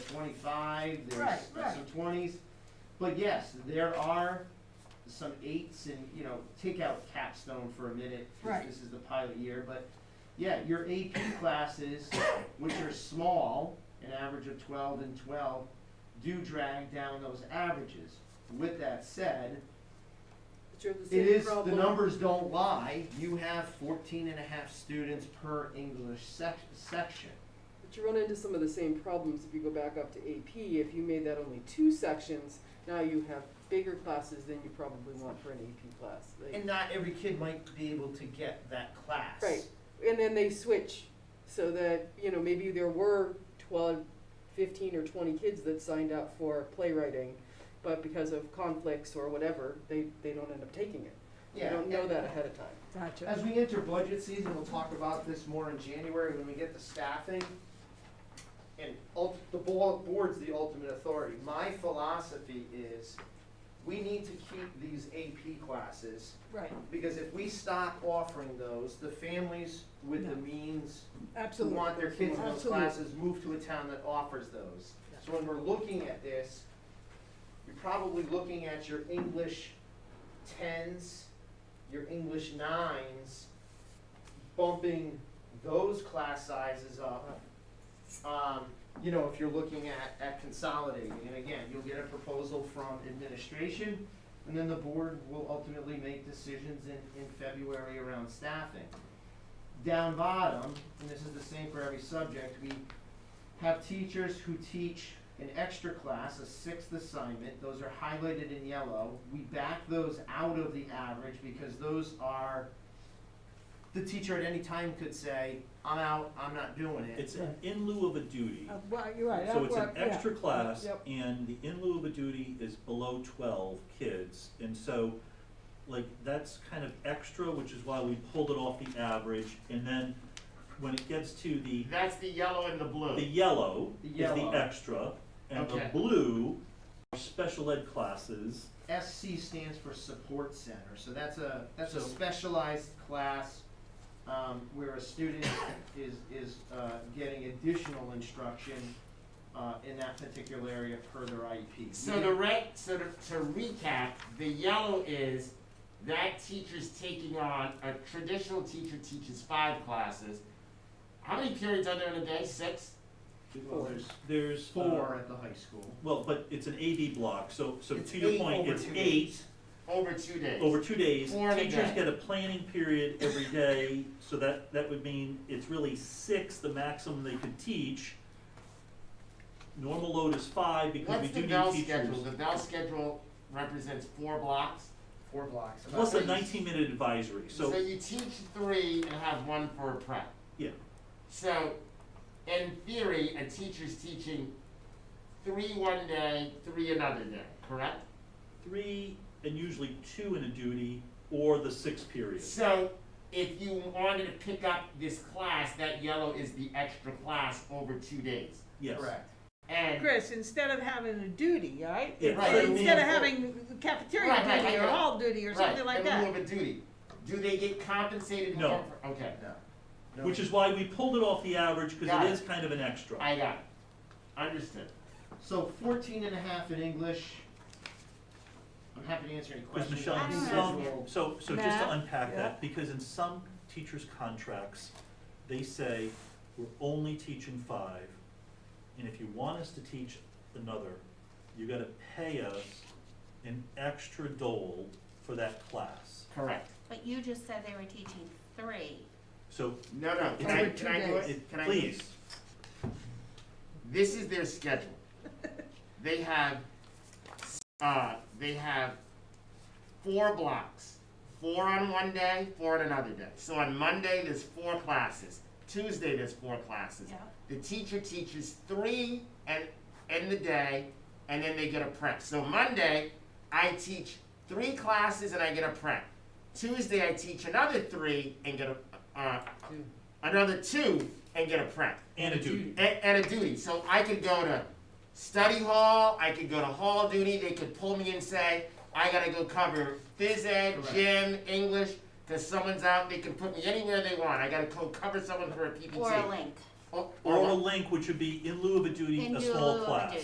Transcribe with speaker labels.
Speaker 1: twenty-five, there's
Speaker 2: Right, right.
Speaker 1: some twenties. But yes, there are some eights and, you know, take out capstone for a minute, 'cause
Speaker 2: Right.
Speaker 1: this is the pilot year, but yeah, your AP classes, which are small, an average of twelve and twelve, do drag down those averages. With that said,
Speaker 3: But you're the
Speaker 1: it
Speaker 3: same
Speaker 1: is,
Speaker 3: problem.
Speaker 1: the numbers don't lie, you have 14 and a half students per English sec- section.
Speaker 3: But you run into some of the same problems if you go back up to AP. If you made that only two sections, now you have bigger classes than you probably want for an AP class. Like-
Speaker 1: And not every kid might be able to get that class.
Speaker 3: Right. and then they switch so that you know maybe there were 12 15 or 20 kids that signed up for playwriting but because of conflicts or whatever they, they don't end up taking it
Speaker 1: Yeah.
Speaker 3: they don't know
Speaker 1: and
Speaker 3: that ahead of time
Speaker 2: Gotcha.
Speaker 1: As we enter budget season, we'll talk about this more in January when we get to staffing. And ult, the bo- board's the ultimate authority. My philosophy is, we need to keep these AP classes
Speaker 2: Right,
Speaker 1: Because if we stop offering those, the families with the
Speaker 2: No.
Speaker 1: means who
Speaker 2: absolutely.
Speaker 1: want their kids in those
Speaker 2: Absolutely.
Speaker 1: classes move to a town that offers those. So when we're looking at this, you're probably looking at your English tens, your English nines, bumping those class sizes up. Um, you know, if you're looking at, at consolidating, and again, you'll get a proposal from administration, and then the board will ultimately make decisions in, in February around staffing. Down bottom, and this is the same for every subject, we have teachers who teach an extra class, a sixth assignment, those are highlighted in yellow. We back those out of the average because those are, the teacher at any time could say, I'm out, I'm not doing it.
Speaker 4: It's an in lieu of a duty,
Speaker 2: Uh, Well, you're right.
Speaker 4: so
Speaker 2: at
Speaker 4: it's an
Speaker 2: work, yeah.
Speaker 4: extra class,
Speaker 2: Yep.
Speaker 4: and the in lieu of a duty is below twelve kids, and so, like, that's kind of extra, which is why we pulled it off the average, and then when it gets to the,
Speaker 5: That's the yellow and the blue.
Speaker 4: the yellow
Speaker 1: The
Speaker 4: is
Speaker 1: yellow.
Speaker 4: the extra, and the
Speaker 1: Okay.
Speaker 4: blue are special ed classes,
Speaker 1: SC stands for support center, so that's a, that's a
Speaker 4: So-
Speaker 1: specialized class, um, where a student is, is, uh, getting additional instruction, uh, in that particular area per their IEP.
Speaker 5: So the red, so to, to recap, the yellow is that teacher's taking on, a traditional teacher teaches five classes. How many periods are there in a day? Six?
Speaker 1: Well, there's
Speaker 4: there's. uh,
Speaker 1: four at the high school.
Speaker 4: Well, but it's an AB block, so, so
Speaker 1: It's
Speaker 4: to your
Speaker 1: eight
Speaker 4: point,
Speaker 1: over
Speaker 4: it's
Speaker 1: two
Speaker 4: eight,
Speaker 1: days.
Speaker 5: Over two days.
Speaker 4: over two days.
Speaker 5: Four in a
Speaker 4: Teachers
Speaker 5: day.
Speaker 4: get a planning period every day, so that, that would mean it's really six, the maximum they could teach. Normal load is five, because we
Speaker 5: What's
Speaker 4: do
Speaker 5: the
Speaker 4: need
Speaker 5: bell schedule?
Speaker 4: teachers.
Speaker 5: The bell schedule represents four blocks.
Speaker 1: Four blocks. about
Speaker 4: Plus a
Speaker 5: Please.
Speaker 4: nineteen minute advisory,
Speaker 5: So
Speaker 4: so,
Speaker 5: you teach three and have one for a prep.
Speaker 4: yeah,
Speaker 5: So, in theory, a teacher's teaching three one day, three another day, correct?
Speaker 4: three and usually two in a duty, or the six period.
Speaker 5: So, if you wanted to pick up this class, that yellow is the extra class over two days.
Speaker 4: Yes,
Speaker 1: Correct.
Speaker 5: And,
Speaker 2: Chris, instead of having a duty, right?
Speaker 4: Yeah,
Speaker 5: Right.
Speaker 2: So Instead of
Speaker 4: right.
Speaker 2: having cafeteria
Speaker 5: Right, right,
Speaker 2: duty or
Speaker 5: right.
Speaker 2: hall duty or
Speaker 5: right,
Speaker 2: something like
Speaker 5: in lieu
Speaker 2: that.
Speaker 5: of a duty, do they get compensated
Speaker 4: No.
Speaker 5: more for, okay,
Speaker 1: No. No.
Speaker 4: which is why we pulled it off the average, because
Speaker 5: Got
Speaker 4: it
Speaker 5: it.
Speaker 4: is kind of an extra.
Speaker 5: I got it, understood.
Speaker 1: So fourteen and a half in English. I'm happy to answer any
Speaker 4: Because
Speaker 1: questions.
Speaker 4: Michelle,
Speaker 1: on
Speaker 4: in
Speaker 2: don't
Speaker 4: some,
Speaker 1: individual-
Speaker 4: so, so just to
Speaker 2: Math,
Speaker 4: unpack
Speaker 2: yeah.
Speaker 4: that, because in some teachers' contracts, they say, we're only teaching five, and if you want us to teach another, you gotta pay us an extra dole for that class.
Speaker 5: Correct.
Speaker 6: But you just said they were teaching three.
Speaker 4: So,
Speaker 5: No, no, can
Speaker 4: Over
Speaker 5: I,
Speaker 2: two
Speaker 5: can I do
Speaker 2: days.
Speaker 5: it?
Speaker 4: it,
Speaker 5: Can I do it?
Speaker 4: please,
Speaker 5: This is their schedule. They have, uh, they have four blocks, four on one day, four on another day. So on Monday, there's four classes, Tuesday, there's four classes.
Speaker 6: Yeah.
Speaker 5: The teacher teaches three and, in the day, and then they get a prep. So Monday, I teach three classes and I get a prep. Tuesday, I teach another three and get a, uh,
Speaker 3: Two.
Speaker 5: another two and get a prep
Speaker 4: and a duty.
Speaker 5: and, and a duty. So I could go to study hall, I could go to hall duty, they could pull me and say, I gotta go cover phys ed,
Speaker 1: Correct.
Speaker 5: gym, English, cause someone's out, they can put me anywhere they want, I gotta go cover someone for a PPT.
Speaker 6: Or a link.
Speaker 5: Or-
Speaker 4: Or
Speaker 5: or-
Speaker 4: a link, which would be in lieu of a duty,
Speaker 6: In
Speaker 4: a
Speaker 6: lieu
Speaker 4: small
Speaker 6: of a
Speaker 4: class.
Speaker 6: duty.